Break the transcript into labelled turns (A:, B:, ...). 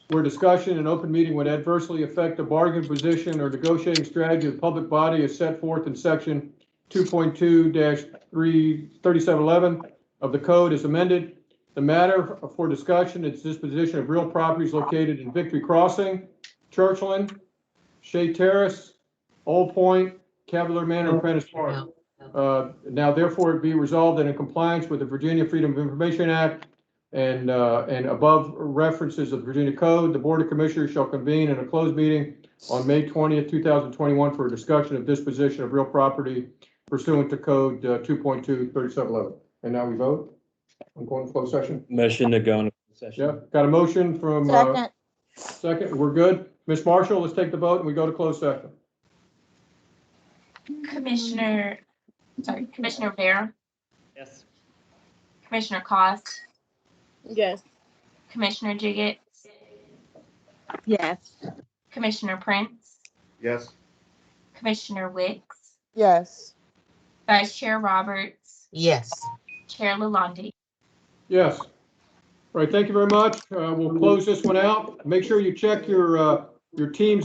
A: where discussion in open meeting would adversely affect the bargaining position or negotiating strategy of the public body as set forth in section two point two dash three, thirty-seven eleven of the code is amended. The matter for discussion is disposition of real properties located in Victory Crossing, Churchland, Shea Terrace, Old Point, Cavalier Manor, and Prentice Park. Uh, Now therefore it be resolved that in compliance with the Virginia Freedom of Information Act and, uh, and above references of the Virginia Code, the Board of Commissioners shall convene in a closed meeting on May twentieth, two thousand twenty-one for a discussion of disposition of real property pursuant to code uh, two point two thirty-seven eleven. And now we vote? I'm going to closed session?
B: Motion to go into session.
A: Yeah, got a motion from, uh,
C: Second,
A: second, we're good. Ms. Marshall, let's take the vote and we go to closed session.
D: Commissioner, sorry, Commissioner Vera,
B: Yes.
D: Commissioner Cost,
C: yes.
D: Commissioner Jiggett,
C: Yes.
D: Commissioner Prince,
E: Yes.
D: Commissioner Wicks,
C: Yes.
D: Vice Chair Roberts,
F: Yes.
D: Chair Lalonde.
A: Yes. All right, thank you very much. Uh, We'll close this one out. Make sure you check your, uh, your team's